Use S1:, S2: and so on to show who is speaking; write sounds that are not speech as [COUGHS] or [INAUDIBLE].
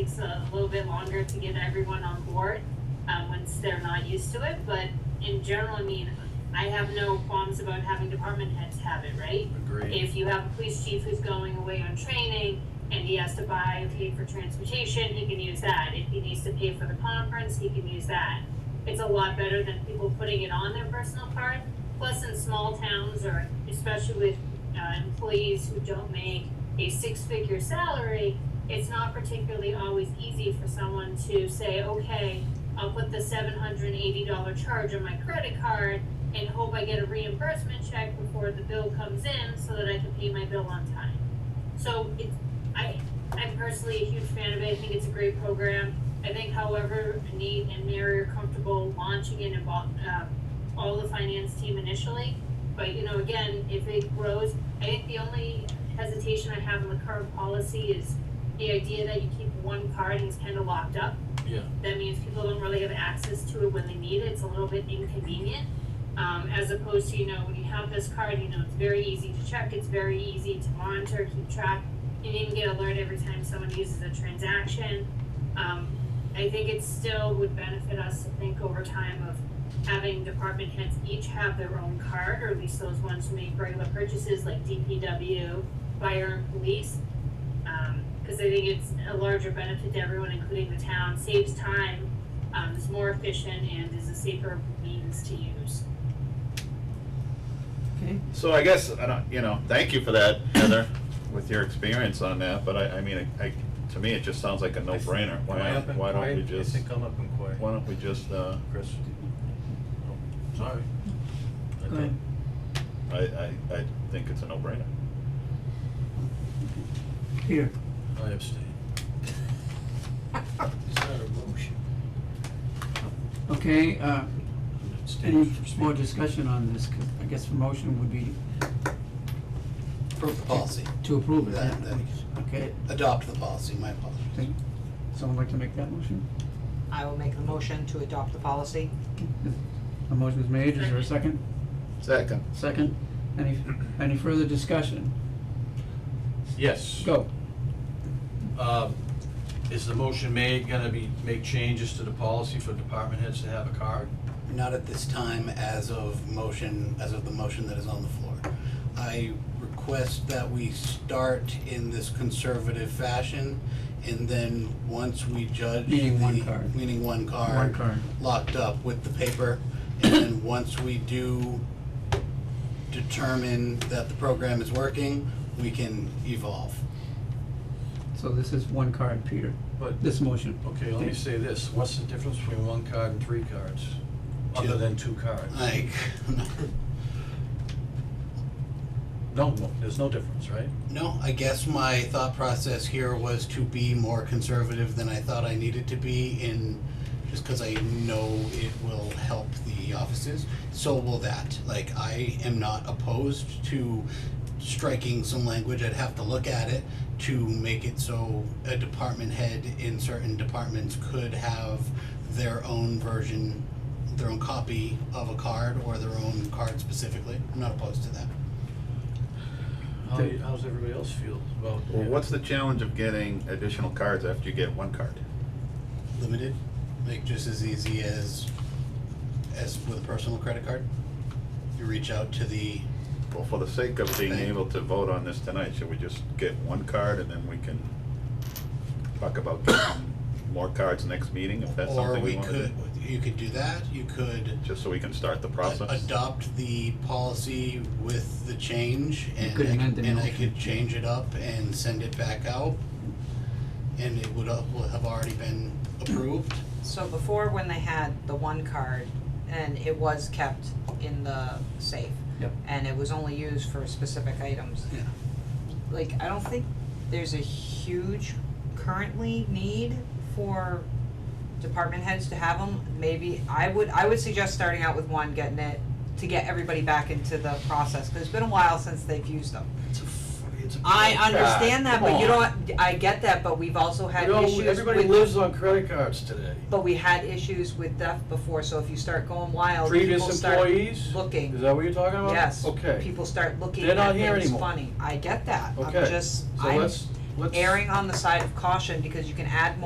S1: a little bit longer to get everyone on board um, once they're not used to it. But in general, I mean, I have no qualms about having department heads have it, right?
S2: Agreed.
S1: If you have a police chief who's going away on training and he has to buy, pay for transportation, he can use that. If he needs to pay for the conference, he can use that. It's a lot better than people putting it on their personal card. Plus, in small towns or especially with uh, employees who don't make a six-figure salary, it's not particularly always easy for someone to say, okay, I'll put the seven hundred and eighty dollar charge on my credit card and hope I get a reimbursement check before the bill comes in so that I can pay my bill on time. So it's, I, I'm personally a huge fan of it, I think it's a great program. I think however Nate and Mary are comfortable launching it and, uh, all the finance team initially. But, you know, again, if it grows, I think the only hesitation I have in the current policy is the idea that you keep one card and it's kind of locked up.
S2: Yeah.
S1: That means people don't really have access to it when they need it, it's a little bit inconvenient. Um, as opposed to, you know, when you have this card, you know, it's very easy to check, it's very easy to monitor, keep track. You even get alert every time someone uses a transaction. Um, I think it still would benefit us to think over time of having department heads each have their own card, or at least those ones who make regular purchases like DPW, fire and police. Um, cause I think it's a larger benefit to everyone, including the town, saves time, um, is more efficient and is a safer means to use.
S3: Okay,
S4: So I guess, I don't, you know, thank you for that, Heather, [COUGHS] with your experience on that, but I, I mean, I, to me, it just sounds like a no-brainer. Why,
S2: Am I up
S4: don't-
S2: and
S4: why don't
S2: quiet?
S4: we just,
S2: I think I'm up and quiet.
S4: why don't we just, uh,
S2: Chris? Oh, Sorry. I
S3: go ahead.
S2: think-
S4: I, I, I think it's a no-brainer.
S3: Peter.
S2: I abstain. Is that a motion?
S3: Okay, uh,
S2: I'm abstaining
S3: any
S2: from speaking.
S3: more discussion on this? 'Cause I guess the motion would be
S5: Approve the policy,
S3: to approve it.
S5: That-
S3: yeah.
S5: that-
S3: Okay,
S5: adopt the policy, my apologies.
S3: think- someone like to make that motion?
S6: I will make the motion to adopt the policy.
S3: A motion was made, is there a second?
S4: Second.
S3: Second, any, any further discussion?
S2: Yes.
S3: Go.
S2: Um, Is the motion made gonna be, make changes to the policy for department heads to have a card?
S5: Not at this time as of motion, as of the motion that is on the floor. I request that we start in this conservative fashion, and then once we judge.
S3: Meaning one
S5: the-
S3: card.
S5: Meaning one card.
S3: One card.
S5: Locked up with the paper, and then once we do determine that the program is working, we can evolve.
S3: So this is one card, Peter,
S2: But,
S3: this motion.
S2: okay, let me say this, what's the difference between one card and three cards? Other
S5: Two.
S2: than two cards?
S5: Like, [LAUGHS]
S2: No, no, there's no difference, right?
S5: No, I guess my thought process here was to be more conservative than I thought I needed to be in, just because I know it will help the offices. So will that. Like, I am not opposed to striking some language. I'd have to look at it to make it so a department head in certain departments could have their own version, their own copy of a card or their own card specifically. I'm not opposed to that.
S2: How, do you- how's everybody else feel about?
S4: Well, what's the challenge of getting additional cards after you get one card?
S5: limited, like just as easy as as with a personal credit card. You reach out to the
S4: Well, for the sake of being
S5: Thank-
S4: able to vote on this tonight, should we just get one card and then we can talk about getting more cards next meeting, if that's
S5: or
S4: something we
S5: we
S4: wanna do?
S5: could you could do that. You could
S4: Just so we can start the
S5: a-
S4: process?
S5: adopt the policy with the change and
S3: could
S5: I,
S3: amend the
S5: and I
S3: motion.
S5: could change it up and send it back out. And it would al- would have already been approved.
S6: So before, when they had the one card, and it was kept in the safe.
S3: Yep.
S6: And it was only used for specific items.
S5: Yeah.
S6: Like, I don't think there's a huge currently need for department heads to have them. Maybe, I would, I would suggest starting out with one, getting it, to get everybody back into the process, because it's been a while since they've used them.
S2: It's a, f- it's a.
S6: I
S2: credit card.
S6: understand that,
S2: Come
S6: but you
S2: on.
S6: don't, I get that, but we've also had
S2: You know,
S6: issues with.
S2: everybody lives on credit cards today.
S6: But we had issues with theft before, so if you start going wild,
S2: Previous
S6: people start
S2: employees?
S6: looking.
S2: Is that what you're talking about?
S6: Yes.
S2: Okay,
S6: People start looking
S2: They're
S6: at
S2: not here
S6: things
S2: anymore.
S6: funny. I get that. I'm
S2: okay.
S6: just,
S2: So
S6: I'm
S2: let's, let's.
S6: erring on the side of caution because you can add more